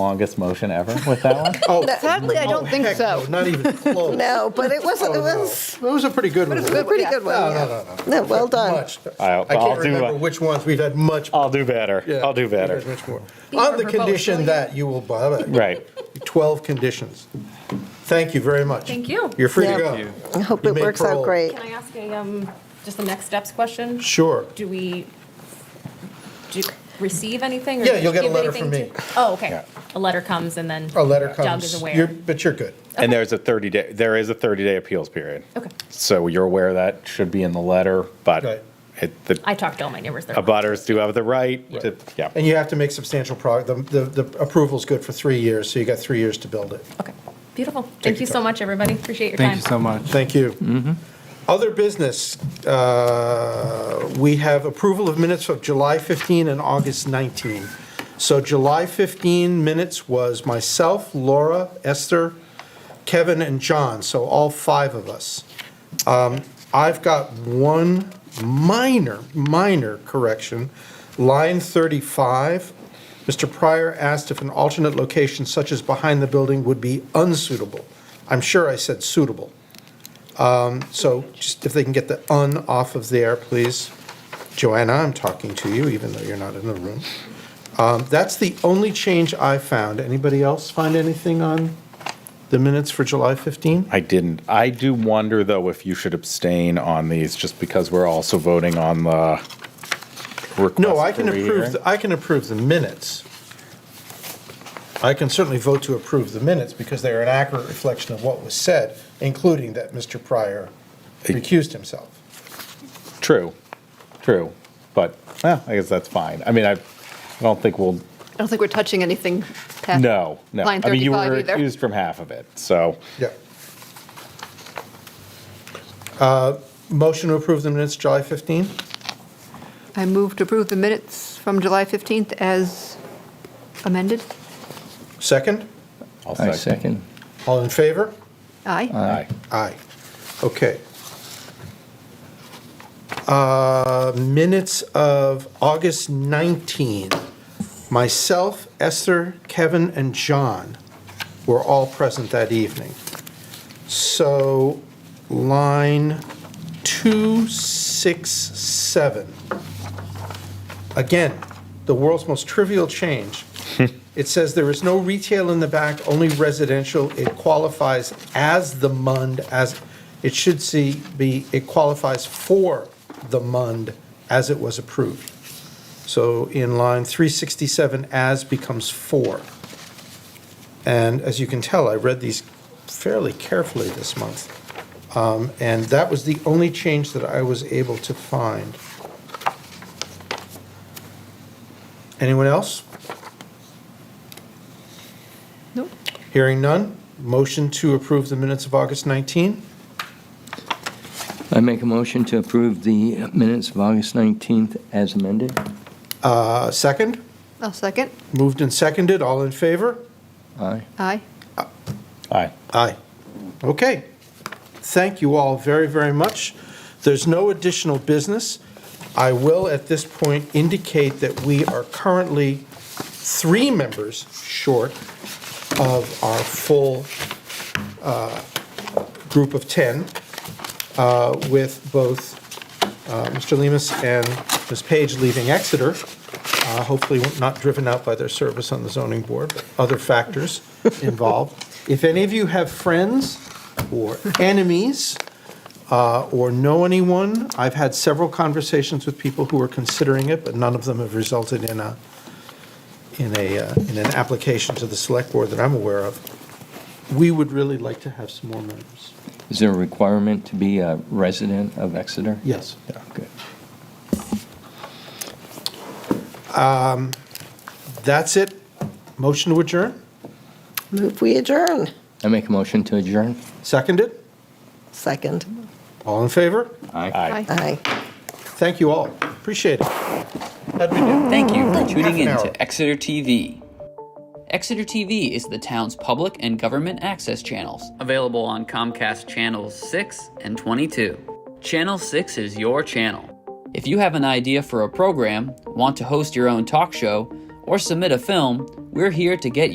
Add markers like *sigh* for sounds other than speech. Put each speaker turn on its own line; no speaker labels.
longest motion ever with that one.
Oh,
Sadly, I don't think
heck no,
so.
Not even close.
*laughs* No, but it
Oh,
wasn't, it
no.
was
It was a pretty good one.
a pretty
Yeah.
good one.
No,
yeah.
no, no,
No, well done.
Much.
I'll-
I
I'll
can't
do
remember
it.
which ones we've had much.
I'll do better.
yeah,
I'll do
we've had
better.
much more.
You
On
were
the
proposed,
condition
weren't
that you will, buy it.
Right.
12 conditions. Thank you very much.
Thank you.
You're free to
Yeah.
go.
I hope
You
it
made
works out
parole.
great.
Can I ask a, um, just the next steps question?
Sure.
Do we, do you receive anything? or
Yeah, you'll get a
give
letter from
anything
me.
to- Oh, okay.
Yeah.
A letter comes and then.
A letter
Doug is
comes. You're-
aware.
But you're good.
And there's a 30 day, there is a 30 day appeals period.
Okay.
So you're aware that should be in the letter,
Right.
but it, the
I talked to all my neighbors there.
abutters do have the right to,
Right.
yeah.
And you have to make substantial progress. The the approval's good for three years, so you got three years to build it.
Okay, beautiful. Thank
your
you so
time.
much, everybody. Appreciate your time.
Thank you so much.
Thank you. Other business, uh, we have approval of minutes of July 15 and August 19. So July 15 minutes was myself, Laura, Esther, Kevin, and John, so all five of us. Um, I've got one minor, minor correction. Line 35, Mr. Pryor asked if an alternate location such as behind the building would be unsuitable. I'm sure I said suitable. So just if they can get the "un" off of there, please. Joanna, I'm talking to you, even though you're not in the room. Um, That's the only change I found. Anybody else find anything on the minutes for July 15?
I didn't. I do wonder though if you should abstain on these just because we're also voting on the request.
No, I can
for
approve,
rehearing.
the- I can approve the minutes. I can certainly vote to approve the minutes because they are an accurate reflection of what was said, including that Mr. Pryor recused himself.
True, true. But, eh, I guess that's fine. I mean, I, I don't think we'll
I don't think we're touching anything past.
No, no.
Line
I mean, you
35
were
either.
accused from half of it, so
Yeah. Uh, Motion to approve the minutes July 15?
I move to approve the minutes from July 15th as amended.
Second?
I'll
I second.
All in favor?
Aye.
Aye.
Aye. Okay. Uh, Minutes of August 19. Myself, Esther, Kevin, and John were all present that evening. So line 267. Again, the world's most trivial change. It says there is no retail in the back, only residential. It qualifies as the MUND as, it should see, be, it qualifies for the MUND as it was approved. So in line 367, as becomes for. And as you can tell, I read these fairly carefully this month. Um, And that was the only change that I was able to find. Anyone else?
Nope.
Hearing none, motion to approve the minutes of August 19.
I make a motion to approve the minutes of August 19th as amended.
Uh, Second,
I'll second.
moved and seconded, all in favor?
Aye.
Aye.
Aye.
Aye. Okay. Thank you all very, very much. There's no additional business. I will, at this point, indicate that we are currently three members short of our full uh, group of 10, uh, with both uh, Mr. Lemus and Ms. Page leaving Exeter, uh, hopefully not driven out by their service on the zoning board, but other factors involved. If any of you have friends or enemies uh, or know anyone, I've had several conversations with people who were considering it, but none of them have resulted in a, in a, uh, in an application to the select board that I'm aware of. We would really like to have some more members.
Is there a requirement to be a resident of Exeter?
Yes.
Yeah, good.
That's it. Motion to adjourn?
Move, we adjourn.
I make a motion to adjourn.
Seconded?
Second.
All in favor?
Aye.
Aye.
Thank you all. Appreciate it. How'd we do?
Thank you for
Half
tuning
an
in
hour.
to Exeter TV. Exeter TV is the town's public and government access channels, available on Comcast Channels 6 and 22. Channel 6 is your channel. If you have an idea for a program, want to host your own talk show, or submit a film, we're here to get your